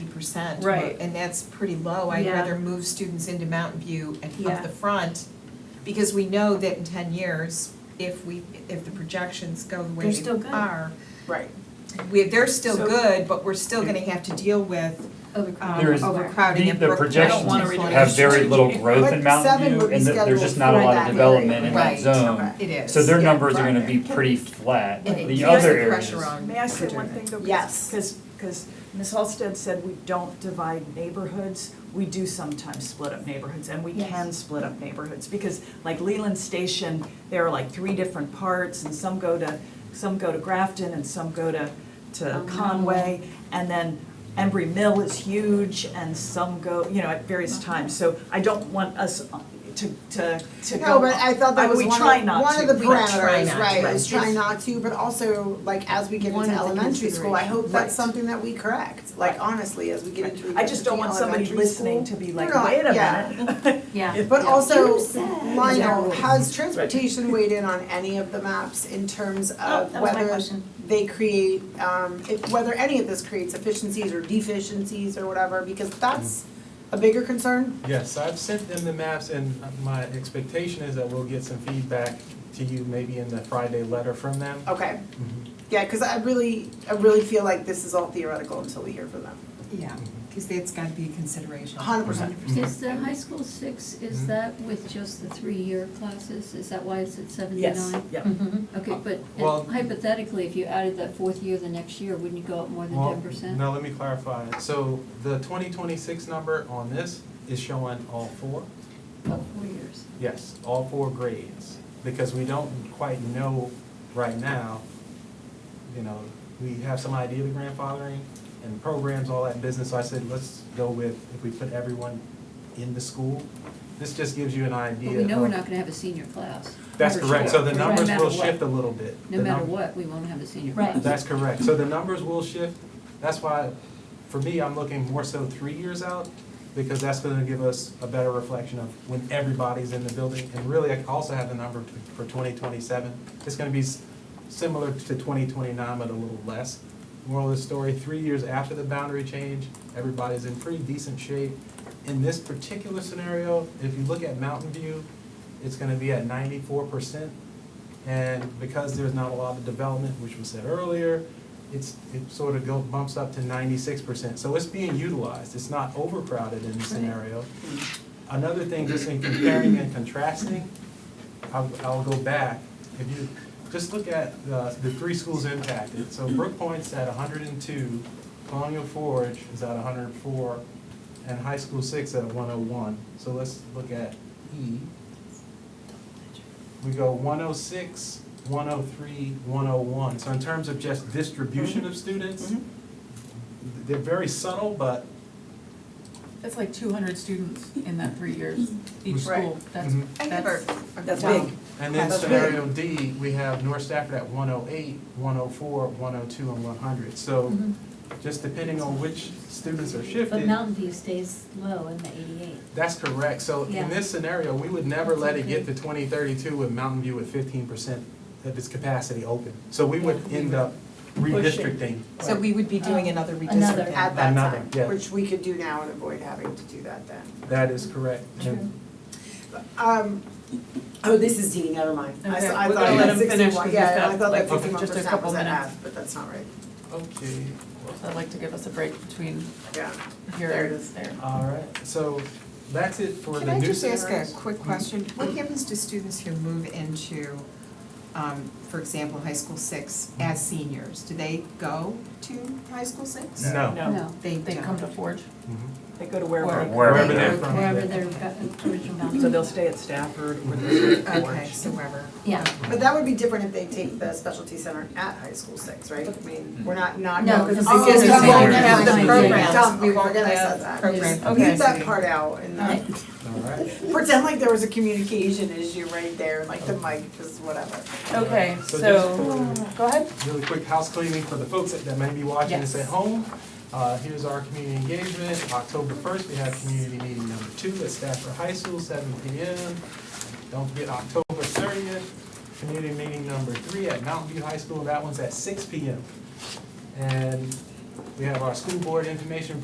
percent. Right. And that's pretty low. I'd Yeah. rather move students into Mountain View and Yeah. up the front. Because we know that in ten years, if we, if the projections go the way They're they still good. are, Right. we, they're still So- good, but we're still gonna have to deal with um, There is- overcrowding The- and the Brookline. projections I don't wanna reduce have very little growth in But seven Mountain View, would be and th- there's just scheduled not a for lot of that. development in that Right. zone. It is. So their yeah. numbers are gonna be Right. pretty flat. And it The keeps other the areas, pressure on. May I say one Katerina. thing though? Yes. Because, because Ms. Halsted said we don't divide neighborhoods. We do sometimes split up neighborhoods and we Yes. can split up neighborhoods. Because like Leland Station, there are like three different parts and some go to, some go to Grafton and some go to, to Oh, Conway. And then Embry Mill is huge and some go, you know, at various Uh-huh. times. So I don't want us uh, to, to, to go. No, but I thought that I- was we one try of, not one to. of the We try not parameters, to, right, right. is try not to, but also, like, as we get One into of the elementary school, I hope considerations. that's something that we correct, like, Right. honestly, as we get Right. into elementary I just don't want somebody listening to be like, No, no, wait a yeah. minute. Yeah. But also, You said- Lionel, has transportation weighed in on any of the maps in terms Oh, of that was my whether question. they create, um, if, whether any of this creates efficiencies or deficiencies or whatever, because that's a bigger concern? Yes, I've sent them the maps, and my expectation is that we'll get some feedback to you maybe in the Friday letter from them. Okay, Mm-hmm. yeah, cause I really, I really feel like this is all theoretical until we hear from them. Yeah, because that's gotta be a consideration. 100%. Mm-hmm. Is the high school six, is that with just the three-year classes? Is that why it's at seventy-nine? Yes, yeah. Mhm. Mm-hmm. Okay, Well- but hypothetically, if you added that fourth year the next year, wouldn't you go up more than Well, ten percent? No, let me clarify. So the twenty twenty-six number on this is showing all four? About four years. Yes, all four grades, because we don't quite know right now, you know, we have some idea of the grandfathering and programs, all that business, so I said, let's go with, if we put everyone in the school, this just gives you an But idea we know we're of- not gonna have a senior class. That's Numbers correct, so the shift. numbers No will matter what. shift a little bit. No The matter num- what, we won't have a senior Right. class. That's correct, so the numbers will shift, that's why, for me, I'm looking more so three years out, because that's gonna give us a better reflection of when everybody's in the building, and really, I also have the number t- for twenty twenty-seven, it's gonna be s- similar to twenty twenty-nine, but a little less. Moral of the story, three years after the boundary change, everybody's in pretty decent shape. In this particular scenario, if you look at Mountain View, it's gonna be at ninety-four percent. And because there's not a lot of development, which was said earlier, it's, it sort of goes, bumps up to ninety-six percent. So it's being utilized, it's not overcrowded in this Right. scenario. Another thing, just in comparing and contrasting, I'll, I'll go back. If you, just look at the, the three schools impacted. So Brook Point's at hundred and two, Colonial Forge is at hundred and four, and High School Six at one oh one. So let's look at E. We go 106, 103, 101. So in terms of just distribution Mm-hmm. of students, Mhm. they're very subtle, but That's like two hundred students in that three years, each Mm-hmm. Right. school, that's, Mhm. I never. that's, That's Wow. big. And then That's scenario D, we have North Stafford at 108, 104, 102, and 100. So Mm-hmm. just depending on which students are But shifted, Mountain View stays low in the eighty-eight. that's correct. So Yeah. in this scenario, we would never let it get okay. to 2032 with Mountain View at 15% of its capacity open. So we would end up redistricting. So we would be doing another Another. redistricting. at that Another, time, yeah. which we could do now and avoid having to do that then. That is correct. And Um, oh, this is D, never mind. I s- Okay, I we're thought gonna let that him finish 'cause sixty-one, he's got, yeah, I thought like, that sixty-one just a percent couple was at minutes. F, but that's not right, Okay, I'd like to give us a break between yeah. here There it and is. there. all right, so that's it for Can the I new just ask a scenarios. Mm-hmm. quick Mm-hmm. question? What happens to students who move into, um, for example, high school six Mm-hmm. as seniors? Do they go to high school six? No. No, They They come to don't. Forge. Mhm. They go to wherever, Wherever they're from. wherever their gu- original boundaries. so they'll stay at Stafford or they'll stay at Okay, Orange. so wherever. Yeah. But that would be different if they take the specialty center at high school six, right? I mean, we're not, not, No, no, because. because Oh, Because we okay. won't have the Yeah. programs, Dumb, we okay, won't forget I said have that. programs. Okay. Leave that part out and then All right. pretend like there was a communication issue right there, like the mic, just whatever. Okay, So so, just go ahead. for really quick house cleaning for the folks that- that may be watching this Yes. at home. Uh, Here's our community engagement. October 1st, we have community meeting number two at Stafford High School, 7 PM. Don't forget October 30th, community meeting number three at Mountain View High School. That one's at 6 PM. And we have our school board information